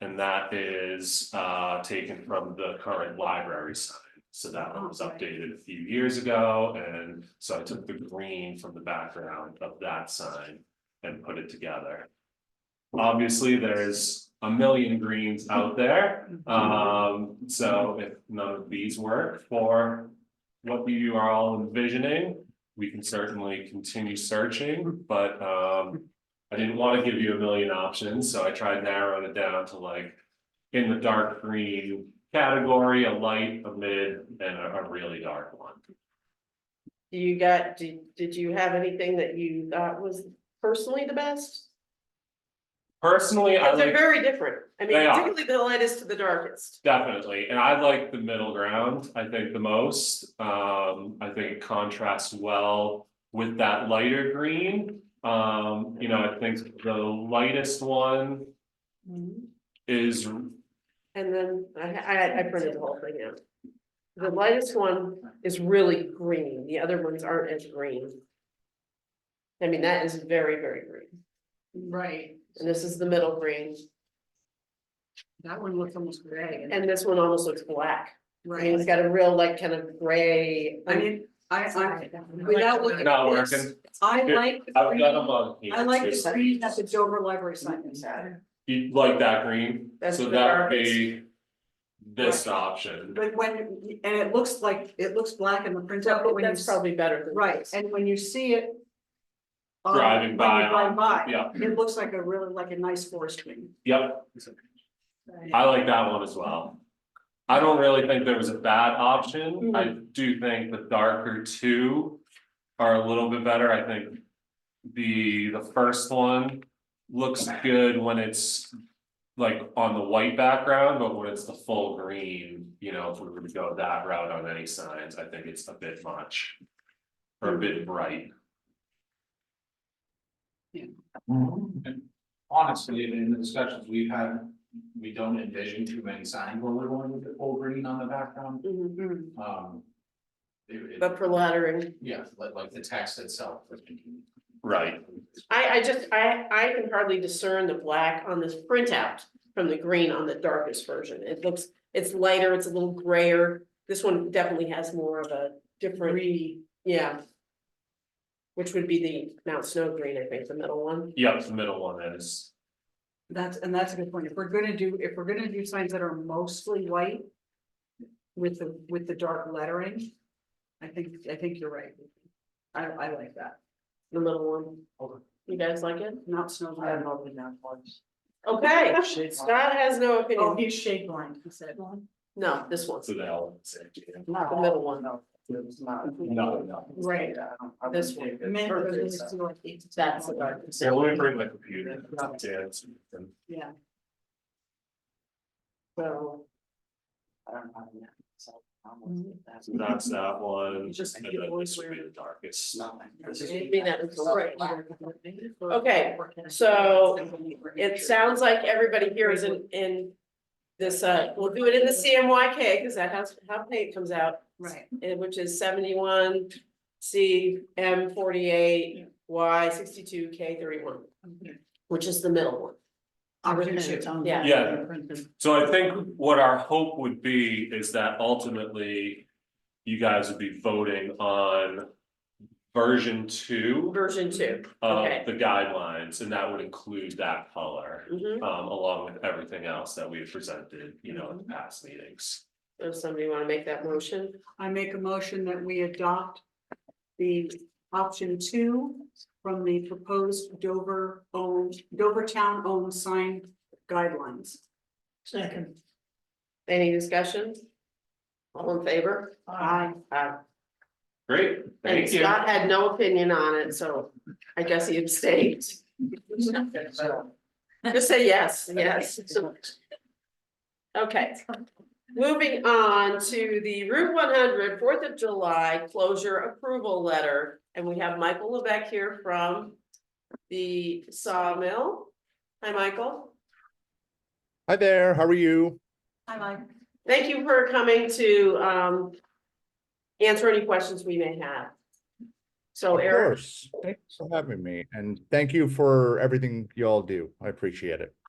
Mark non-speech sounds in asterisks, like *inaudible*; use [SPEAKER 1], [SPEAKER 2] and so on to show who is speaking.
[SPEAKER 1] And that is uh taken from the current library sign. So that one was updated a few years ago, and so I took the green from the background of that sign and put it together. Obviously, there's a million greens out there, um, so if none of these work for what you are all envisioning, we can certainly continue searching, but um. I didn't wanna give you a million options, so I tried narrowing it down to like. In the dark green category, a light, a mid, and a, a really dark one.
[SPEAKER 2] Do you got, did, did you have anything that you thought was personally the best?
[SPEAKER 1] Personally, I
[SPEAKER 2] Because they're
[SPEAKER 1] like
[SPEAKER 2] very different. I mean,
[SPEAKER 1] They are.
[SPEAKER 2] particularly the lightest to the darkest.
[SPEAKER 1] definitely, and I like the middle ground, I think the most, um, I think it contrasts well. With that lighter green, um, you know, I think the lightest one
[SPEAKER 2] Mm-hmm.
[SPEAKER 1] is
[SPEAKER 2] And then I, I, I printed the whole thing out. The lightest one is really green. The other ones aren't as green. I mean, that is very, very green.
[SPEAKER 3] Right,
[SPEAKER 2] And this is the middle green.
[SPEAKER 3] that one looks almost gray.
[SPEAKER 2] And this one almost looks black. I mean, it's
[SPEAKER 3] Right,
[SPEAKER 2] got a real like kind of gray.
[SPEAKER 3] I mean, I, I,
[SPEAKER 2] Sorry, that one.
[SPEAKER 3] without looking.
[SPEAKER 1] not
[SPEAKER 3] at this,
[SPEAKER 1] working,
[SPEAKER 3] I like. the
[SPEAKER 1] I've got a
[SPEAKER 3] green-
[SPEAKER 1] mug here.
[SPEAKER 3] I like
[SPEAKER 1] too.
[SPEAKER 3] the green that the Dover Library sign is at,
[SPEAKER 1] You like that green,
[SPEAKER 2] That's
[SPEAKER 1] so
[SPEAKER 2] the
[SPEAKER 1] that would
[SPEAKER 2] darkest.
[SPEAKER 1] be this
[SPEAKER 3] Right.
[SPEAKER 1] option,
[SPEAKER 3] but when, and it looks like, it looks black in the printout, but when you.
[SPEAKER 2] That's probably better than.
[SPEAKER 3] Right,
[SPEAKER 2] this.
[SPEAKER 3] and when you see it. um,
[SPEAKER 1] Driving
[SPEAKER 3] when you
[SPEAKER 1] by.
[SPEAKER 3] Drive by,
[SPEAKER 1] yeah,
[SPEAKER 3] it looks like a really, like a nice forest green.
[SPEAKER 1] yep, I like that one as well. I don't really think there was a bad option,
[SPEAKER 2] Mm-hmm.
[SPEAKER 1] I do think the darker two are a little bit better, I think. The, the first one looks good when it's like on the white background, but when it's the full green, you know, if we were to go that route on any signs, I think it's a bit much. Or a bit bright.
[SPEAKER 4] And honestly, in the discussions we've had, we don't envision too many signs where we're going with the full green on the background,
[SPEAKER 2] Mhm.
[SPEAKER 3] Mm,
[SPEAKER 4] um. it-
[SPEAKER 2] But for laddering,
[SPEAKER 4] Yeah, like, like the text itself. was being-
[SPEAKER 1] Right.
[SPEAKER 2] I, I just, I, I can hardly discern the black on this printout from the green on the darkest version. It looks, it's lighter, it's a little grayer. This one definitely has more of a different,
[SPEAKER 3] Green,
[SPEAKER 2] yeah. Which would be the Mount Snow green, I think, the middle one.
[SPEAKER 1] Yep, the middle one is,
[SPEAKER 3] that's, and that's a good point, if we're gonna do, if we're gonna do signs that are mostly white. With the, with the dark lettering, I think, I think you're right. I, I like that,
[SPEAKER 2] The middle one.
[SPEAKER 4] Okay.
[SPEAKER 2] You guys like it?
[SPEAKER 3] not snow.
[SPEAKER 4] I
[SPEAKER 3] blind. *laughs*
[SPEAKER 2] Okay,
[SPEAKER 4] Shade
[SPEAKER 2] Scott has no
[SPEAKER 3] Oh,
[SPEAKER 2] opinion.
[SPEAKER 3] he's shade blind, he said.
[SPEAKER 2] No, this one's
[SPEAKER 1] so the elements.
[SPEAKER 2] the middle one.
[SPEAKER 4] No, no.
[SPEAKER 3] Right.
[SPEAKER 2] This one.
[SPEAKER 3] Men are really still like eight to ten.
[SPEAKER 2] That's the darkest.
[SPEAKER 1] Yeah, let me bring my computer. Dance.
[SPEAKER 3] Yeah,
[SPEAKER 2] So,
[SPEAKER 1] So That's uh, that one.
[SPEAKER 3] Just-
[SPEAKER 1] And then this would be the darkest.
[SPEAKER 2] maybe that is right.
[SPEAKER 3] okay,
[SPEAKER 2] so It sounds like everybody here is in, in this, uh, we'll do it in the CMYK, because that has, how paint comes out,
[SPEAKER 3] Right,
[SPEAKER 2] and eh, which is seventy-one, C, M forty-eight, Y sixty-two, K thirty-one, which is the middle one.
[SPEAKER 3] opportunity,
[SPEAKER 2] Yeah.
[SPEAKER 1] Yeah. So I think what our hope would be is that ultimately you guys would be voting on version two
[SPEAKER 2] Version two, okay.
[SPEAKER 1] of the guidelines, and that would include that color,
[SPEAKER 2] Mhm.
[SPEAKER 1] um, along with everything else that we have presented, you know, in past meetings.
[SPEAKER 2] Does somebody wanna make that motion?
[SPEAKER 3] I make a motion that we adopt the option two from the proposed Dover owned, Dover town owned sign guidelines.
[SPEAKER 5] Second,
[SPEAKER 2] Any discussion? All in favor?
[SPEAKER 3] I,
[SPEAKER 2] Aye.
[SPEAKER 1] Great,
[SPEAKER 2] And
[SPEAKER 1] thank you.
[SPEAKER 2] Scott had no opinion on it, so I guess he abstained. *laughs* Just say yes, yes. Okay. Moving on to the Route 100 Fourth of July closure approval letter, and we have Michael Levesque here from the Sawmill. Hi, Michael.
[SPEAKER 6] Hi there, how are you?
[SPEAKER 3] I like,
[SPEAKER 2] Thank you for coming to um answer any questions we may have. So
[SPEAKER 6] Of
[SPEAKER 2] Eric,
[SPEAKER 6] course. Thanks for having me and thank you for everything you all do. I appreciate it.